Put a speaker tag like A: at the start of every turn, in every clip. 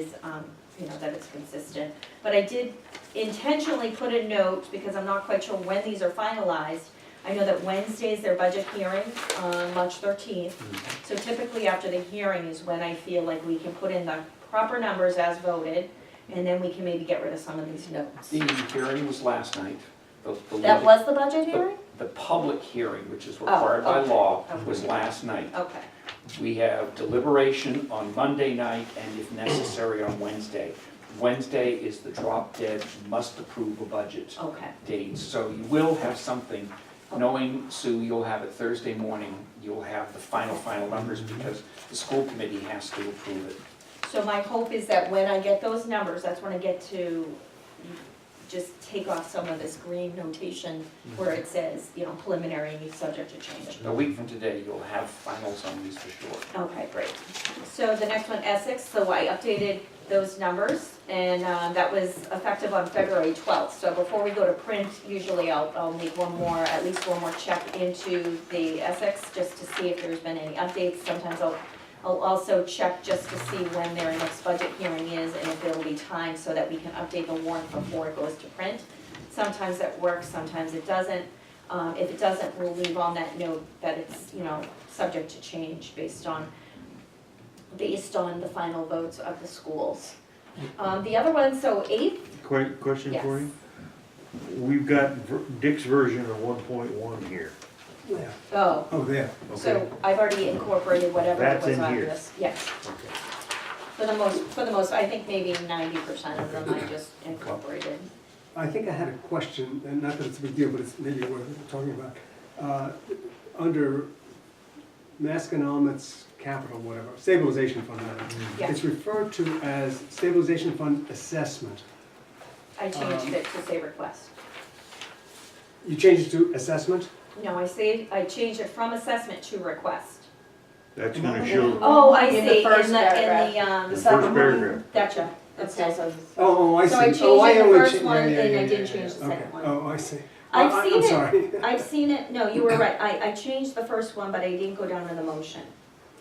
A: is, um, you know, that it's consistent. But I did intentionally put a note, because I'm not quite sure when these are finalized. I know that Wednesday is their budget hearing, on March thirteenth. So typically after the hearing is when I feel like we can put in the proper numbers as voted, and then we can maybe get rid of some of these notes.
B: The hearing was last night. The- the
A: That
B: lit-
A: was the budget hearing?
B: The public hearing, which is required by
A: okay, Oh,
B: law,
A: okay.
B: was last night.
A: Okay,
B: We have deliberation on Monday night and if necessary on Wednesday. Wednesday is the drop dead, must approve a budget
A: okay,
B: date. So you will have something, knowing Sue, you'll have it Thursday morning. You'll have the final, final numbers because the school committee has to approve it.
A: so my hope is that when I get those numbers, that's when I get to just take off some of this green notation where it says, you know, preliminary, subject to change.
B: A week from today, you'll have finals on these for sure.
A: Okay, great. So the next one, Essex, so I updated those numbers, and uh, that was effective on February 12th. So before we go to print, usually I'll, I'll make one more, at least one more check into the Essex, just to see if there's been any updates. Sometimes I'll, I'll also check just to see when their next budget hearing is, and if there'll be time, so that we can update the warrant before it goes to print. Sometimes that works, sometimes it doesn't. Um, If it doesn't, we'll leave on that note that it's, you know, subject to change based on, based on the final votes of the schools. Um, The other one, so eight,
C: Que- Question
A: yes.
C: for you? We've got ver- Dick's version of one point one here.
A: Oh,
D: Oh, there.
C: Okay.
A: so I've already incorporated whatever
C: That's
A: was
C: in
A: on
C: here.
A: this. Yes,
C: Okay.
A: for the most, for the most, I think maybe ninety percent of them I just incorporated.
D: I think I had a question, and not that it's a big deal, but it's maybe worth talking about. Uh, Under Masconomet's capital, whatever, stabilization fund, whatever,
A: Yeah.
D: it's referred to as stabilization fund assessment.
A: I changed
D: Um,
A: it to say request.
D: You changed it to assessment?
A: No, I saved, I changed it from assessment to request.
C: That's gonna show
A: Oh, I see,
E: In
A: in
E: the
A: the,
E: first
A: in the,
E: paragraph.
C: the
A: um,
C: first
E: second one.
C: paragraph.
A: gotcha, okay.
E: Okay, so.
D: Oh, oh, I see.
A: So I changed
D: Oh,
A: it the
D: only
A: first
D: cha- yeah,
A: one,
D: yeah,
A: and
D: yeah,
A: I
D: yeah,
A: didn't
D: yeah,
A: change the
D: okay.
A: second one.
D: Oh, I see.
A: I've
D: I- I-
A: seen it.
D: I'm sorry.
A: I've seen it, no, you were right, I, I changed the first one, but I didn't go down to the motion.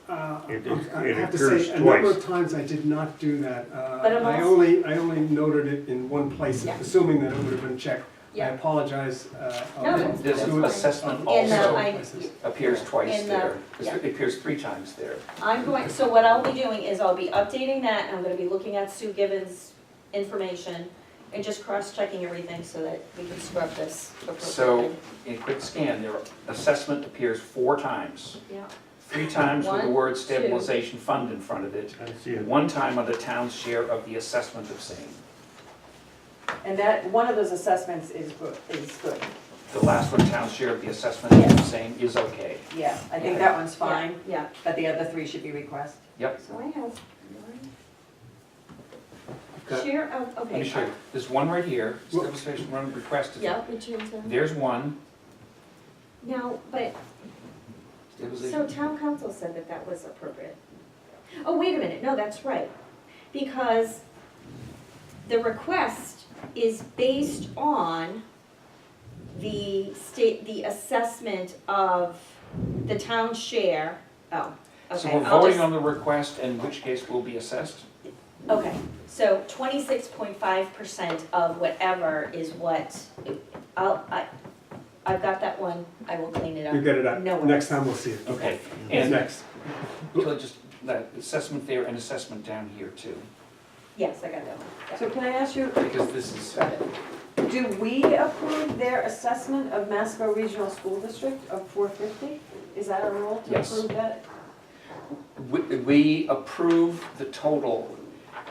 D: Uh,
C: It- it-
D: I
C: it
D: have to
C: occurs
D: say, a number
C: twice.
D: of times I did not do that. Uh,
A: But I'm
D: I
A: also-
D: only, I only noted it in one place,
A: Yeah.
D: assuming that it would have been checked. I
A: Yeah.
D: apologize. uh, I'll-
A: No,
D: I'll
A: that's
D: do it
B: assessment
D: in
A: And, uh,
D: other
B: also.
A: I,
D: places.
B: appears twice
A: In the-
B: there,
A: uh, yeah.
B: It appears three times there.
A: I'm going, so what I'll be doing is I'll be updating that, and I'm gonna be looking at Sue Gibbons' information, and just cross-checking everything so that we can scrub this appropriately.
B: So in a quick scan, there, assessment appears four times.
A: Yeah,
B: Three times with the
A: One,
B: word
A: two.
B: stabilization fund in front of it,
C: I see
B: and
C: it.
B: one time on the town's share of the assessment of same.
E: And that, one of those assessments is good, is good,
B: The last one, town's share of the assessment of
E: Yeah.
B: same, is okay.
E: yeah, I think that one's fine,
A: yeah,
E: but the other three should be request.
B: Yep.
A: so I have one.
B: Got-
A: Share of, okay.
B: Let me show you. There's one right here,
D: Whoop.
B: stabilization fund requested.
A: Yeah, we changed them.
B: There's one.
A: Now, but, so
B: Stabilization.
A: town council said that that was appropriate. Oh, wait a minute, no, that's right, because the request is based on the state, the assessment of the town share, oh,
B: So
A: okay,
B: we're
A: I'll
B: voting
A: just,
B: on the request, in which case will be assessed?
A: okay. So twenty-six point five percent of whatever is what, I'll, I, I've got that one, I will clean it up.
D: You get it up.
A: No worries.
D: Next time we'll see it.
B: Okay.
D: It's
B: And
D: next.
B: So just that assessment there and assessment down here too,
A: Yes, I got that one, yeah.
E: So can I ask you,
B: because this is,
E: do we approve their assessment of Masco Regional School District of four fifty? Is that a rule to
B: Yes.
E: approve that?
B: we- we approve the total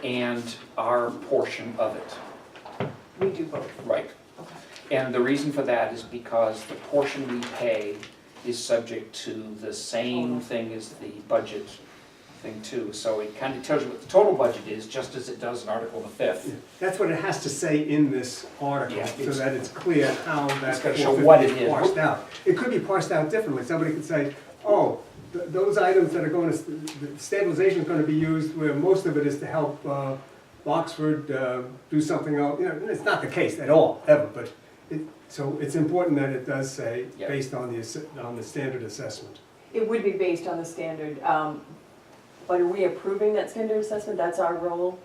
B: and our portion of it,
E: We do both.
B: right? And the reason for that is because the portion we pay is subject to the same thing as the budget thing too. So it kind of tells you what the total budget is, just as it does in Article the
D: Yeah.
B: Fifth.
D: That's what it has to say in this article,
B: Yeah,
D: so
B: it's-
D: that it's clear how that
B: gotta show what it
D: 450 is
B: is.
D: parsed out. It could be parsed out differently. Somebody could say, oh, th- those items that are going to, the stabilization is going to be used where most of it is to help uh, Oxford uh, do something else. You know, it's not the case at all, ever, but it, so it's important that it does say,
B: Yeah.
D: based on the, ass- on the standard assessment.
E: It would be based on the standard, um, but are we approving that standard assessment? That's our role